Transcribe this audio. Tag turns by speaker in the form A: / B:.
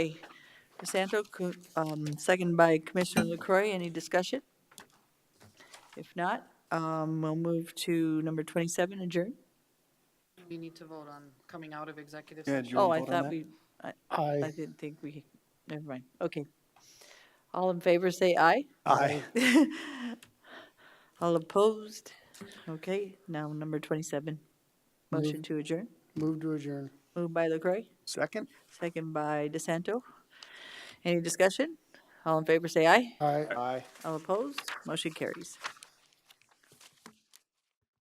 A: DeSanto, co- um, second by Commissioner LaCroy. Any discussion? If not, um, we'll move to number 27, adjourn.
B: We need to vote on coming out of executive
C: Yeah,
B: session.
C: do you
A: Oh,
C: want
A: I
C: to vote on
A: thought
C: that?
A: we, I I
D: I,
A: didn't think we, never mind. Okay. All in favor, say aye.
C: Aye.
A: All opposed? Okay, now number 27. Motion to adjourn.
D: move to adjourn.
A: Moved by LaCroy,
C: Second?
A: second by DeSanto. Any discussion? All in favor, say aye.
D: Aye.
C: Aye.
A: All opposed? Motion carries.